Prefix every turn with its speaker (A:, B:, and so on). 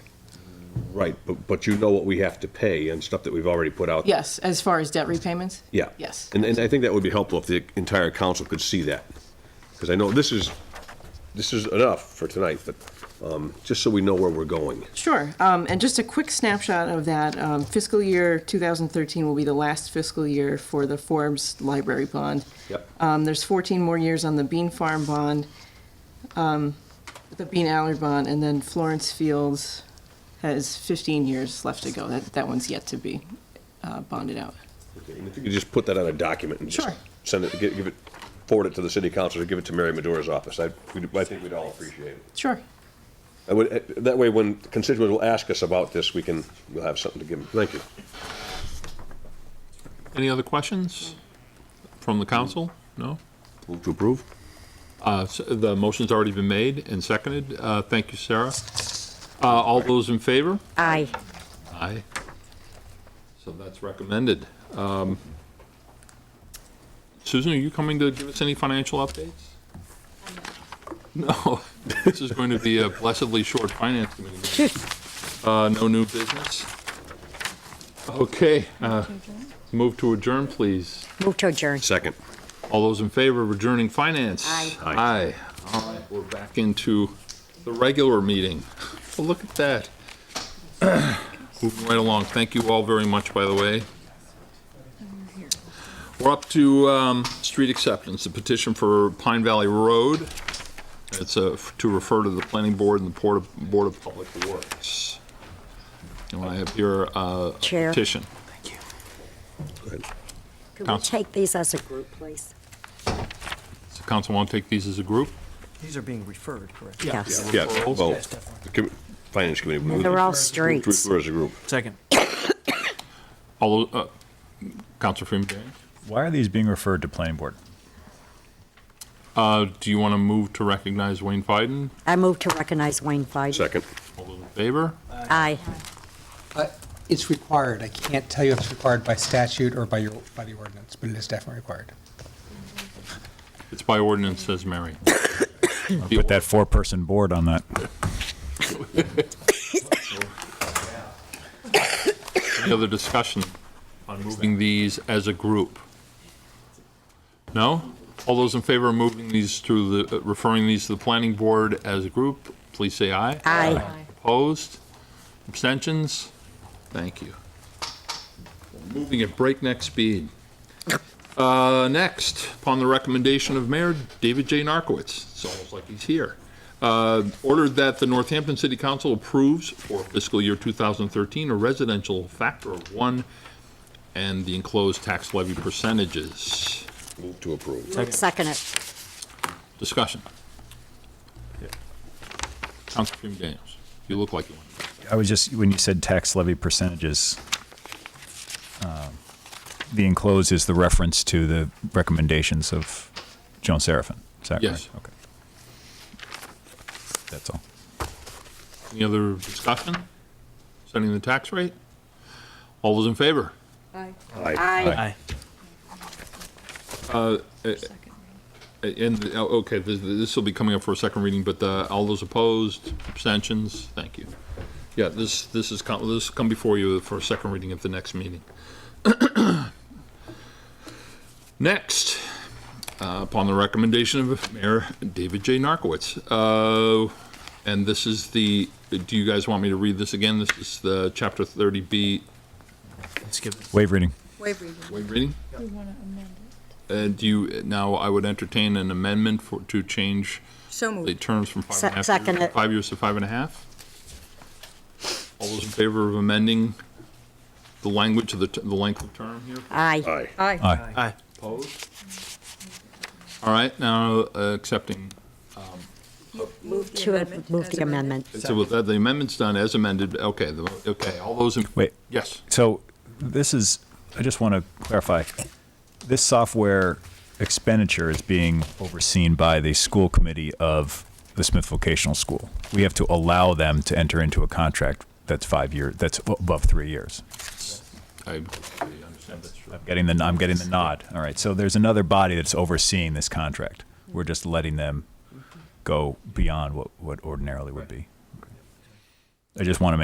A: Right, but, but you know what we have to pay and stuff that we've already put out.
B: Yes, as far as debt repayments?
A: Yeah.
B: Yes.
A: And, and I think that would be helpful if the entire council could see that. Because I know this is, this is enough for tonight, but, um, just so we know where we're going.
B: Sure. Um, And just a quick snapshot of that, um, fiscal year 2013 will be the last fiscal year for the Forbes Library Bond.
A: Yep.
B: Um, There's 14 more years on the Bean Farm Bond, um, the Bean Allard Bond, and then Florence Fields has 15 years left to go. That, that one's yet to be uh, bonded out.
A: And If you could just put that on a document and just
B: Sure.
A: send it, give give it, forward it to the city council or give it to Mary Madura's office. I, we'd- I think we'd all appreciate it.
B: Sure.
A: I would, eh, that way when constituents will ask us about this, we can, we'll have something to give them. Thank you.
C: Any other questions from the council? No?
A: Move to approve?
C: Uh, s- The motion's already been made and seconded. Uh, Thank you, Sarah. Uh, All those in favor?
D: Aye.
C: Aye. So that's recommended. Um, Susan, are you coming to give us any financial updates? No, this is going to be a blessedly short finance committee meeting. Uh, No new business? Okay, uh, move to adjourn, please.
D: Move to adjourn.
A: Second.
C: All those in favor of adjourning finance?
D: Aye.
A: Aye.
C: Aye. All right, we're back into the regular meeting. Well, look at that. Moving right along. Thank you all very much, by the way. We're up to um, street acceptance, the petition for Pine Valley Road. It's uh, to refer to the planning board and the Board of- Board of Public Works. And I have here uh, a
D: Chair.
C: petition.
D: Could we
C: Counsel.
D: take these as a group, please?
C: Does the council want to take these as a group?
E: These are being referred, correct?
D: Yes.
A: Yeah,
C: Referrals?
A: well, the commi- Finance Committee. move
D: They're all
A: to- move to
D: streets.
A: refer As a group.
E: Second.
C: All, uh, Counselor Freeman Barry?
F: Why are these being referred to planning board?
C: Uh, do you want to move to recognize Wayne Fiden?
D: I move to recognize Wayne Feig.
A: Second.
C: All those in favor?
D: Aye.
G: Uh, It's required. I can't tell you if it's required by statute or by your, by the ordinance, but it is definitely required.
C: It's by ordinance, says Mary.
F: Put that four-person board on that.
C: Any other discussion on moving these as a group? No? All those in favor of moving these to the, uh, referring these to the planning board as a group, please say aye.
D: Aye.
C: Opposed? Abstentions? Thank you. Moving at breakneck speed. Uh, Next, upon the recommendation of Mayor David J. Narcoitz, it's almost like he's here, uh, ordered that the Northampton City Council approves for fiscal year 2013 a residential factor of one and the enclosed tax levy percentages.
A: Move to approve.
D: Second it.
C: Discussion. Council Freeman Daniels, you look like you want.
F: I was just, when you said tax levy percentages, um, the enclosed is the reference to the recommendations of Joan Seraphin. Is that right?
C: Yes.
F: Okay. That's all.
C: Any other discussion? Setting the tax rate? All those in favor?
A: Aye.
F: Aye.
C: A- And, oh, okay, this- this will be coming up for a second reading, but uh, all those opposed, abstentions, thank you. Yeah, this, this is, come- this will come before you for a second reading at the next meeting. Next, uh, upon the recommendation of Mayor David J. Narcoitz, uh, and this is the, do you guys want me to read this again? This is the Chapter 30B
E: Let's give it.
F: Wave reading.
H: Wave reading.
C: Wait, reading?
H: We want to amend it.
C: Uh, do you, now I would entertain an amendment for, to change
H: So
C: the
H: moved.
C: terms from five and a half.
D: Se- second
C: years-
D: it.
C: Five years to five and a half? All those in favor of amending the language of the, t- the length of term here?
D: Aye.
A: Aye.
H: Aye.
F: Aye.
E: Aye.
C: Opposed? All right, now uh, accepting,
H: Move
D: To a- move
H: as
D: the amendment.
C: so with that, the amendment's done as amended, okay, the, okay, all those in,
F: Wait,
C: yes,
F: so this is, I just want to clarify, this software expenditure is being overseen by the school committee of the Smith Vocational School. We have to allow them to enter into a contract that's five year, that's above three years.
C: I I understand that's true.
F: I'm getting the, I'm getting the nod. All right, so there's another body that's overseeing this contract. We're just letting them go beyond what, what ordinarily would be. I just want to make